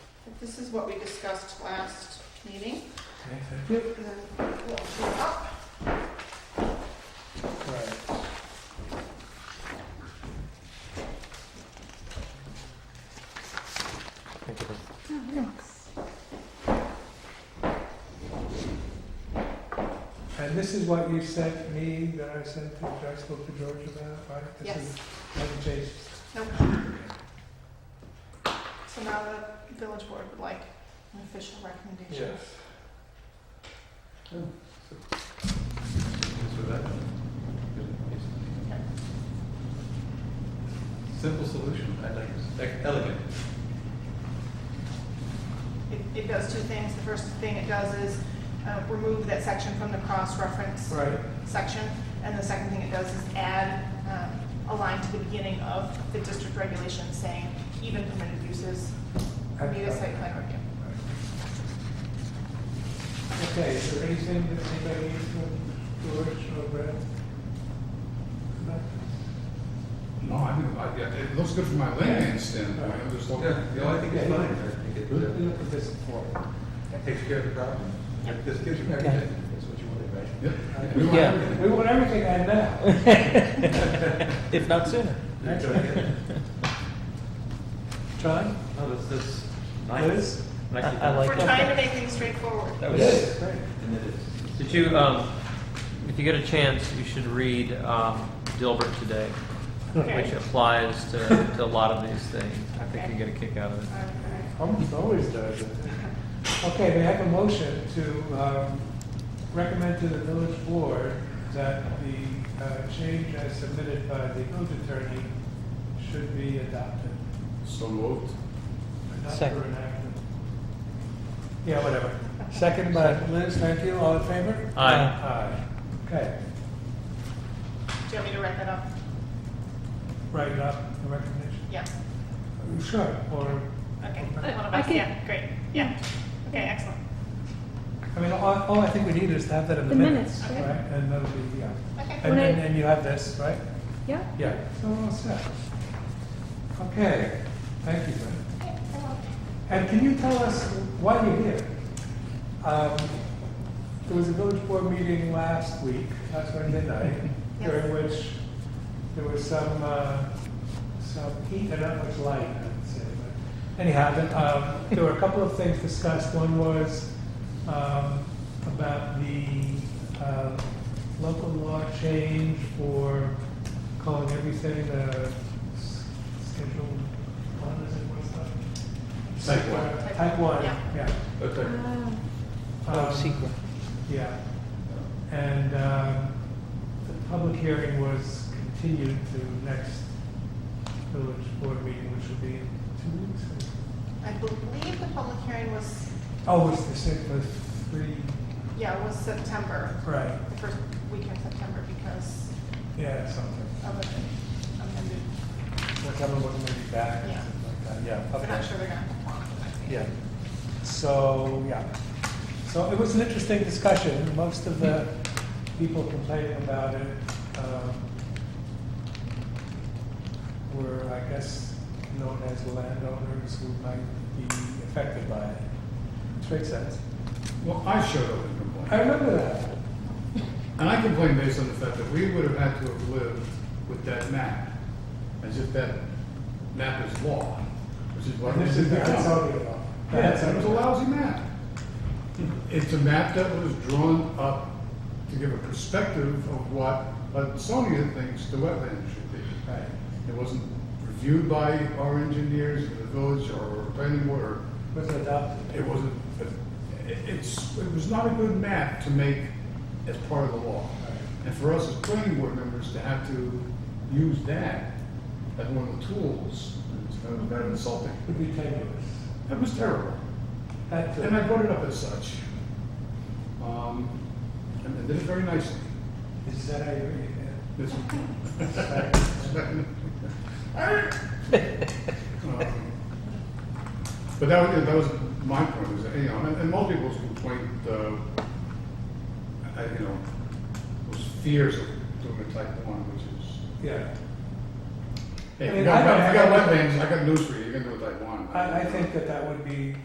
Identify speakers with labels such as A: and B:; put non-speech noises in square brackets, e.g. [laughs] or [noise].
A: This is what we discussed last meeting.
B: Okay, thank
A: And then we'll shoot up.
B: you. Right. Thank you. And this is what you sent me, that I sent to, that I spoke to George about, right? This
A: Yes,
B: is- Hasn't changed.
A: nope. So now the village board would like an official recommendation.
C: So that, simple solution, I like it, Like, elegant.
A: It, it does two things. The first thing it does is, uh, remove that section from the cross-reference
B: Right,
A: section. And the second thing it does is add, um, a line to the beginning of the district regulations saying even permitted uses need a site plan review.
B: okay, is there anything that anybody needs from George or Brad?
D: No, I mean, I, yeah, it looks good from my layman standpoint, I'm just looking.
C: Yeah, no, I think it's
B: Yeah.
C: fine, I think it, uh,
B: Look at this form.
C: takes care of the problem.
A: Yep.
C: This gives you
B: Okay.
C: everything, that's what you wanted, right?
D: Yep.
B: Right.
D: We want
E: Yeah.
D: everything.
B: We want everything and uh, now.
E: If not sooner.
C: You're
B: That's
C: gonna [laughs] get-
B: John?
F: Oh, that's, that's
B: Liz?
F: nice. Nicely
E: I- I
F: done.
E: like-
A: We're trying to make things straightforward. Uh,
F: That
B: Yes,
F: was,
B: great.
C: And then it's,
F: did you, um, if you get a chance, you should read, um, Dilbert today, which
A: Okay.
F: applies to, to a lot of these things. I think you get a kick out of it.
A: Okay.
B: Almost always does. it. Okay, we have a motion to um, recommend to the village board that the uh, change as submitted by the village attorney should be adopted.
D: So moved.
B: Not for
E: Second.
B: enactment. Yeah, whatever. Second by Liz, thank you. All in favor?
F: Aye.
B: Aye. Okay,
A: Do you want me to write that up?
B: write it up, the recommendation.
A: Yeah,
B: Sure, or,
A: okay.
B: Okay.
A: One of
E: Uh, I
A: us,
E: can-
A: yeah, great, yeah. Okay, excellent.
B: I mean, all, all I think we need is to have that in the
G: The minutes,
B: minutes.
A: yeah.
B: Right, and that'll be, yeah.
A: Okay,
B: And,
G: When I-
B: and and you have this, right?
G: Yeah.
B: Yeah. So we're all set. Okay, thank you, Brent. And can you tell us why you're here? Um, There was a village board meeting last week, last Wednesday night,
A: Yes.
B: during which there was some, uh, some heat and not much light, I would say. but Anyhow, the- um, there were a couple of things discussed. One was um, about the uh, local law change for calling everything a s- schedule one, is it, what's that?
D: Site plan.
B: Type one,
A: Yeah.
B: yeah.
C: okay.
G: Ah.
E: Oh,
B: Um,
E: secret.
B: Yeah. And um, the public hearing was continued to next village board meeting, which will be in two weeks. I think.
A: I believe the public hearing was,
B: Oh, it's the same, was three,
A: yeah, was September,
B: right,
A: the first week in September because
B: yeah, something.
A: of the amended,
B: Someone wasn't going to be back, or
A: Yeah.
B: something like that, yeah.
A: I'm
B: okay.
A: not sure they're gonna perform.
B: Yeah. So, yeah. So it was an interesting discussion. Most of the people complaining about it um, were, I guess, known as landowners who might be affected by it. Which makes sense.
D: Well, I showed up and
B: I
D: complained.
B: remember that.
D: And I complained based on the fact that we would have had to have lived with that map, as if that map is law, which is what.
B: And This is the
D: we've done.
B: Hudsonia law. The
D: Yeah, it was a
B: Hudsonia law.
D: lousy map. It's a map that was drawn up to give a perspective of what Hudsonia thinks the wetland should be.
B: Right.
D: It wasn't reviewed by our engineers, the village, or planning board, or
B: Was adopted.
D: it wasn't, it- it's, it was not a good map to make as part of the law. And for us as planning board members to have to use that as one of the tools, it's kind of kind of insulting.
B: Could be tenuous.
D: That was terrible.
B: Had to.
D: And I brought it up as such. Um, and and did it very nicely.
B: Is that how you read it?
D: This- Um, But that was, that was my point, is, that, you know, and, and most people's complaint, uh, I, you know, was fears of doing a type one, which is,
B: Yeah. I
D: hey,
B: mean,
D: you
B: I
D: got,
B: don't
D: wet- you got
B: have-
D: wetlands, I got news for you, you're gonna do a type one.
B: I, I think that that would be